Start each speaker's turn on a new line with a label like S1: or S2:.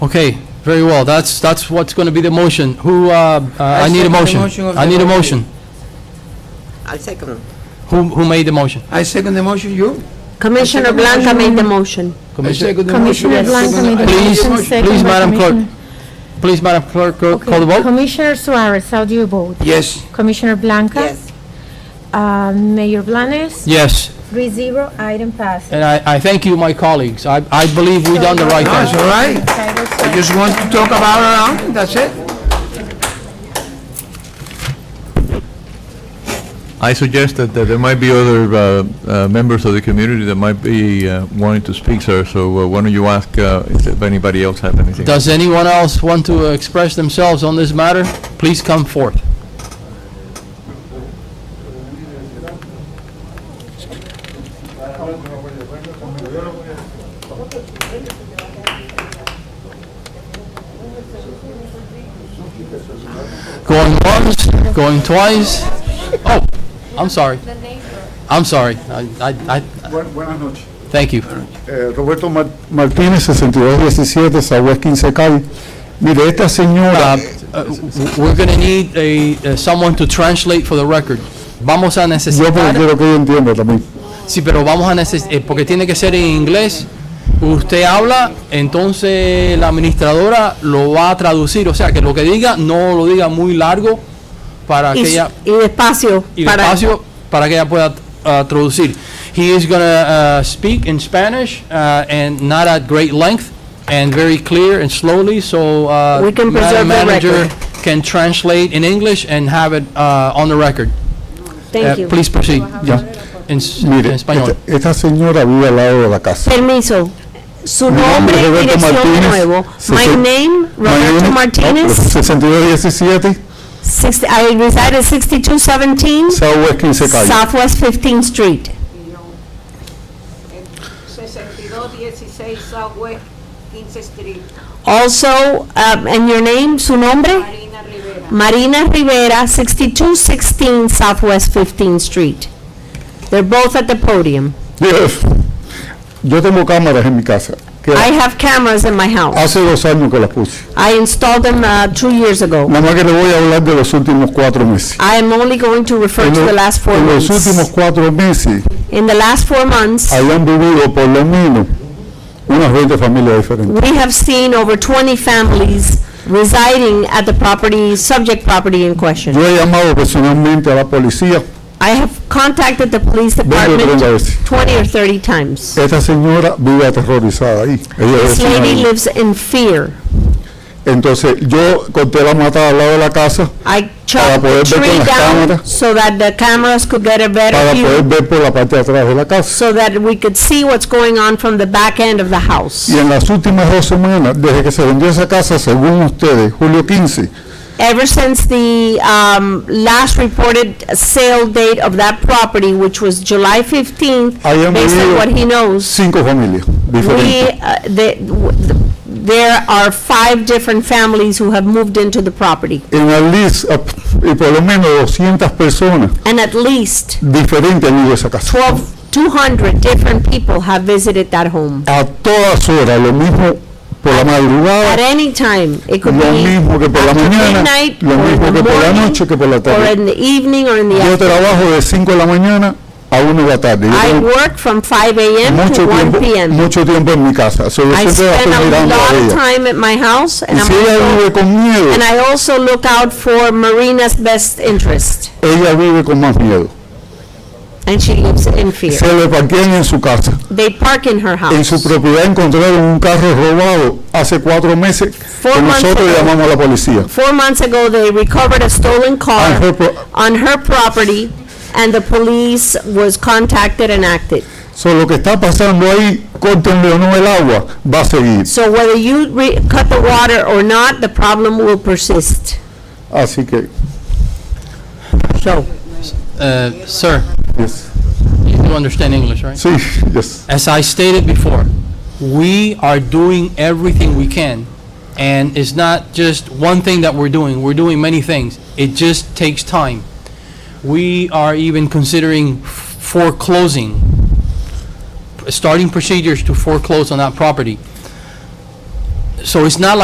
S1: Okay, very well. That's, that's what's going to be the motion. Who, uh, uh, I need a
S2: second the
S1: motion.
S2: motion of
S1: I
S2: the
S1: need a
S2: committee.
S1: motion.
S3: I'll second.
S1: Who, who made the motion?
S2: I second the motion, you?
S4: Commissioner Blanca made the motion.
S2: I
S1: Commissioner?
S2: second the motion.
S5: Commissioner
S2: I second
S5: Blanca
S2: the-
S5: made the
S2: I
S1: Please,
S2: second the
S5: motion.
S2: motion.
S5: second
S1: please,
S5: by
S1: Madam Clerk,
S5: Commissioner-
S1: please, Madam Clerk, go-
S5: Okay.
S1: call the vote.
S5: Commissioner Suarez, how do you vote?
S2: Yes,
S5: Commissioner Blanca?
S3: Yes,
S5: Uh, Mayor Blanes?
S1: Yes,
S5: Three zero, item passes.
S1: and I, I thank you, my colleagues. I, I believe we done the right
S2: no, it's
S1: thing.
S2: all right.
S5: Title
S2: I
S5: seven.
S2: just want to talk about it, uh, that's it.
S6: I suggest that, that there might be other uh, uh, members of the community that might be uh, wanting to speak, sir, so uh, why don't you ask uh, if if anybody else have anything?
S1: Does anyone else want to express themselves on this matter? Please come forth. Going once, going twice. Oh, I'm sorry. I'm sorry. I, I, I,
S7: Bu- Buenas noches.
S1: thank you.
S7: Eh, Roberto Mar- Martínez, 6217, Southwest 15 Calle. Mire, esta señora,
S1: Uh, uh, We're going to need a, uh, someone to translate for the record. Vamos a
S7: yo porque
S1: necesitar,
S7: quiero que ella entienda también.
S1: sí, pero vamos a necesitar, porque tiene que ser en inglés. Usted habla, entonces la administradora lo va a traducir, o sea, que lo que diga no lo diga muy largo para que
S4: Y,
S1: ella,
S4: y despacio.
S1: y
S4: para-
S1: despacio, para que ella pueda uh, traducir. He is going to speak in Spanish uh, and not at great length and very clear and slowly, so uh,
S4: We can
S1: Madam
S4: preserve the
S1: Manager
S4: record.
S1: can translate in English and have it uh, on the record.
S7: Eh,
S4: Thank
S1: Uh,
S4: you.
S1: Please proceed.
S7: Ya.
S1: En s- en
S7: Mire,
S1: español.
S7: esta, esta señora vive al lado de la casa.
S4: Permiso. Su
S7: Mi
S4: nombre
S7: nombre es
S4: y
S7: Roberto
S4: dirección de
S7: Martínez.
S4: nuevo.
S7: Sí,
S4: My
S7: sí.
S4: name, Roberto
S7: Mayor- no,
S4: Martinez.
S7: 6217,
S4: six- I reside at 6217
S7: Southwest 15 Calle.
S4: Southwest 15th Street.
S8: 6216 Southwest 15 Street,
S4: Also, um, and your name, su nombre?
S8: Marina Rivera.
S4: Marina Rivera, 6216 Southwest 15th Street. They're both at the podium.
S7: Yes. Yo tengo cámaras en mi casa. que
S4: I have cameras in my house.
S7: hace dos años que las puse.
S4: I installed them uh, two years ago.
S7: Nada más que le voy a hablar de los últimos cuatro meses.
S4: I am only going to refer to
S7: lo-
S4: the last four
S7: en los últimos
S4: months.
S7: cuatro meses
S4: In the last four months,
S7: hayan vivido por lo menos unas 20 familias diferentes.
S4: we have seen over 20 families residing at the property, subject property in question.
S7: Yo he llamado personalmente a la policía.
S4: I have contacted the police department
S7: 30 veces.
S4: 20 or 30 times.
S7: Esta señora vive aterrorizada ahí. Ella es
S4: This
S7: vecina
S4: lady
S7: ahí.
S4: lives in fear.
S7: Entonces yo corté la mata al lado de la casa
S4: I
S7: Para
S4: chopped the
S7: poder ver con
S4: tree
S7: las
S4: down
S7: cámaras.
S4: so that the cameras could get a
S7: para
S4: better
S7: poder
S4: view,
S7: ver por la parte de atrás de la casa.
S4: so that we could see what's going on from the back end of the
S7: Y
S4: house.
S7: en las últimas dos semanas, desde que se vendió esa casa, según ustedes, julio 15,
S4: Ever since the um, last reported sale date of that property, which was July 15th,
S7: I am
S4: based on
S7: really-
S4: what he knows,
S7: cinco familias
S4: we,
S7: diferentes.
S4: uh, the- w- the- there are five different families who have moved into the property,
S7: En la lista, y por lo menos 200 personas
S4: and at least
S7: diferentes han ido a esa casa.
S4: 12, 200 different people have visited that home.
S7: a todas horas, lo mismo por la madrugada,
S4: At any time, it could be
S7: lo mismo que por la
S4: after
S7: mañana,
S4: midnight,
S7: lo
S4: or in
S7: mismo
S4: the
S7: que por la
S4: morning,
S7: noche, que por la
S4: or
S7: tarde.
S4: in the evening, or in the
S7: Yo
S4: afternoon.
S7: trabajo de 5 de la mañana a 1 de la tarde. Yo
S4: I
S7: tengo
S4: work from 5 a.m. to
S7: mucho
S4: 1
S7: tiempo,
S4: p.m.
S7: mucho tiempo en mi casa. So, yo
S4: I
S7: siempre la
S4: spend
S7: estoy
S4: a
S7: mirando
S4: lot
S7: a
S4: of
S7: ella.
S4: time at my house, and
S7: Y
S4: I'm
S7: si ella
S4: also-
S7: vive con miedo,
S4: and I also look out for Marina's best interest,
S7: ella vive con más miedo.
S4: and she lives in fear.
S7: Se le parquean en su casa.
S4: They park in her
S7: En su
S4: house.
S7: propiedad encontraron un carro robado hace cuatro meses
S4: Four
S7: que
S4: months
S7: nosotros
S4: ago.
S7: llamamos a la policía.
S4: Four months ago, they recovered a stolen car
S7: On her pro-
S4: on her property, and the police was contacted and acted.
S7: So, lo que está pasando ahí, córtenle o no el agua, va a seguir.
S4: So whether you re- cut the water or not, the problem will persist.
S7: Así que,
S4: So,
S1: Uh, Sir,
S7: yes.
S1: you do understand English, right?
S7: sí, yes.
S1: As I stated before, we are doing everything we can, and it's not just one thing that we're doing, we're doing many things. It just takes time. We are even considering foreclosing, starting procedures to foreclose on that property. So it's not like